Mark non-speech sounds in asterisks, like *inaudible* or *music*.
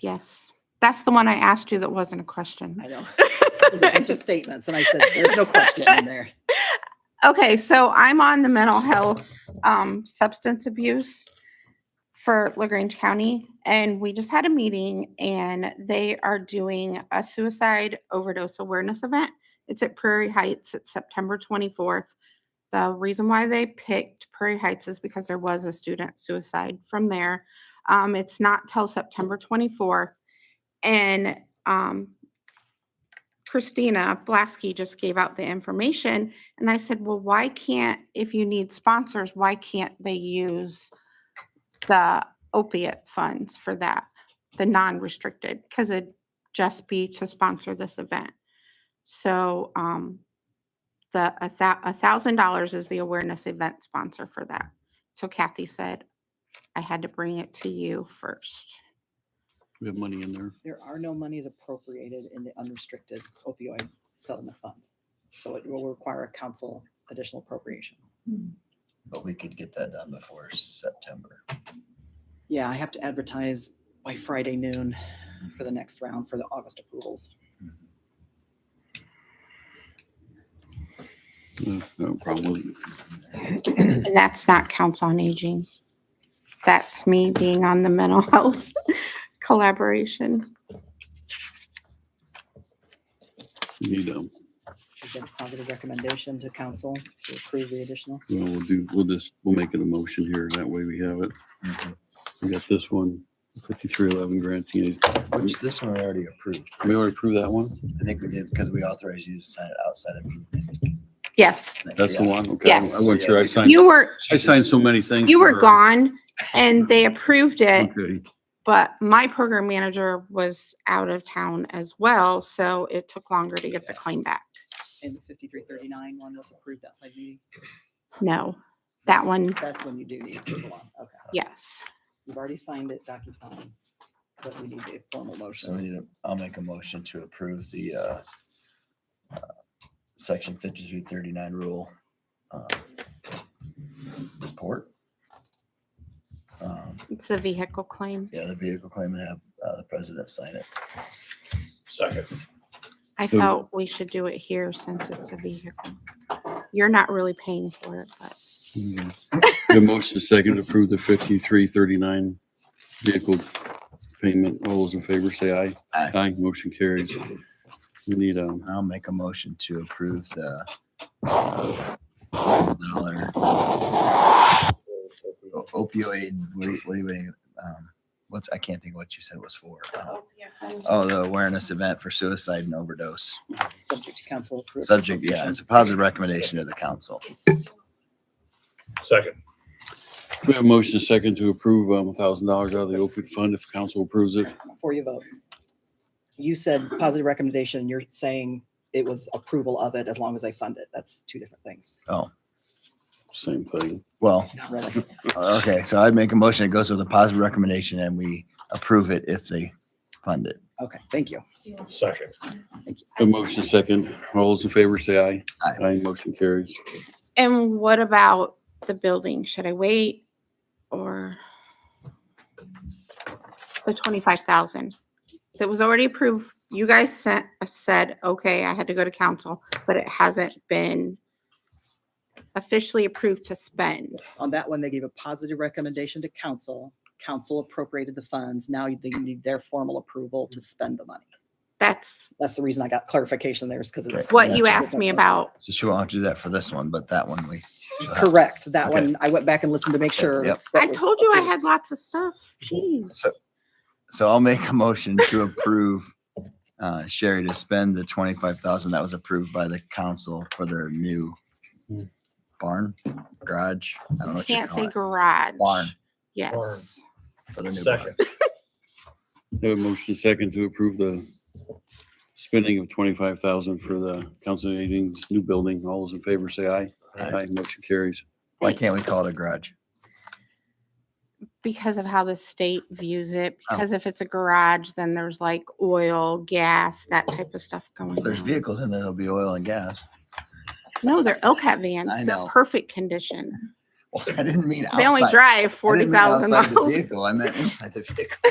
Yes. That's the one I asked you that wasn't a question. I *laughs* know. There's a bunch of statements, and I said, there's no question in there. Okay, so I'm on the mental health um, substance abuse for LaGrange County, and we just had a meeting, and they are doing a suicide overdose awareness event. It's at Prairie Heights. It's September 24th. The reason why they picked Prairie Heights is because there was a student suicide from there. Um, it's not till September 24th, and um, Christina Blasky just gave out the information. And I said, well, why can't, if you need sponsors, why can't they use the opiate funds for that, the non-restricted? Because it'd just be to sponsor this event. So um, the, a thou, a thousand dollars is the awareness event sponsor for that. So Kathy said, I had to bring it to you first. We have money in there. *laughs* There are no monies appropriated in the unrestricted opioid settlement fund. So it will require a council additional appropriation. But we could get that done before September. Yeah, I have to advertise by Friday noon for the next round for the August approvals. No, no problem with it. And that's not Counts on Aging. That's me being on the mental *laughs* health collaboration. We Need, um, Is there a positive recommendation to council to approve the additional? we'll do, we'll just, we'll make it a motion here. That way we have it. Mm-hmm. We got this one, fifty-three eleven grant. We Which this one we already approved. already approved that one? I think we did because we authorized you to sign it outside of. meeting, I think. Yes, That's the Yeah. one? Okay. I wasn't sure. I signed, you were, I signed so many things. you for were her. gone and they approved it, Okay. but my program manager was out of town as well, so it took longer to get the claim back. And the fifty-three thirty-nine one was approved outside meeting? No, that one, That's when you do need approval on, okay. yes. You've already signed it, DocuSign, but we need a formal So we motion. need to, I'll make a motion to approve the, uh, uh, section fifty-three thirty-nine rule, uh, report. Um, It's the vehicle claim. Yeah, the vehicle claim and have, uh, the president sign it. I So- felt we should do it here since it's a vehicle. You're not really paying for it, but The motion is second to approve the fifty-three thirty-nine vehicle payment. All those in favor say aye. Aye. Aye. Motion carries. We need, um, I'll make a motion to approve the uh, thousand dollar opioid, what do you- what do you, um, what's, I can't think what you said was for. uh, Oh, the awareness event for suicide and overdose. Subject to council approval. Subject, yeah, it's a positive recommendation to the council. Second. we have a motion is second to approve, um, a thousand dollars out of the opioid fund if council approves it. Before you vote. You said positive recommendation, you're saying it was approval of it as long as they fund it. That's two different things. Same thing. Well, uh, Really? okay, so I'd make a motion, it goes with a positive recommendation and we approve it if they fund it. Okay, thank you. Second. A motion is second. All those in favor say aye. Aye. Aye. Motion carries. And what about the building? Should I wait or the twenty-five thousand? That was already approved. You guys sent, said, okay, I had to go to council, but it hasn't been officially approved to spend. On that one, they gave a positive recommendation to council. Council appropriated the funds. Now they need their formal approval to spend the money. That's That's the reason I got clarification there is because it's. Okay. what you That's asked me about. So she won't have to do that for this one, but that one we. she'll have- Correct. That Okay. one, I went back and listened to make sure. Yep. that I was told you I approved. had lots of stuff. Jeez. So- So I'll make a motion to approve uh, Sherry to spend the twenty-five thousand that was approved by the council for their new barn, garage. I don't know what you Can't call say it. garage. Barn. Barn. Yes. For their new barn. Second. Have a motion is second to approve the spending of twenty-five thousand for the council on aging's new building. All those in favor say aye. Aye. Aye. Motion carries. Why can't we call it a garage? because of how the state views it, Oh. because if it's a garage, then there's like oil, gas, that type of stuff going If Oh, there's on. vehicles in there, there'll be oil and gas. *laughs* No, they're LCAT vans. I They're know. perfect condition. Well, I didn't mean outside. They only I drive forty didn't mean thousand outside the miles. Vehicle, I meant inside the vehicle.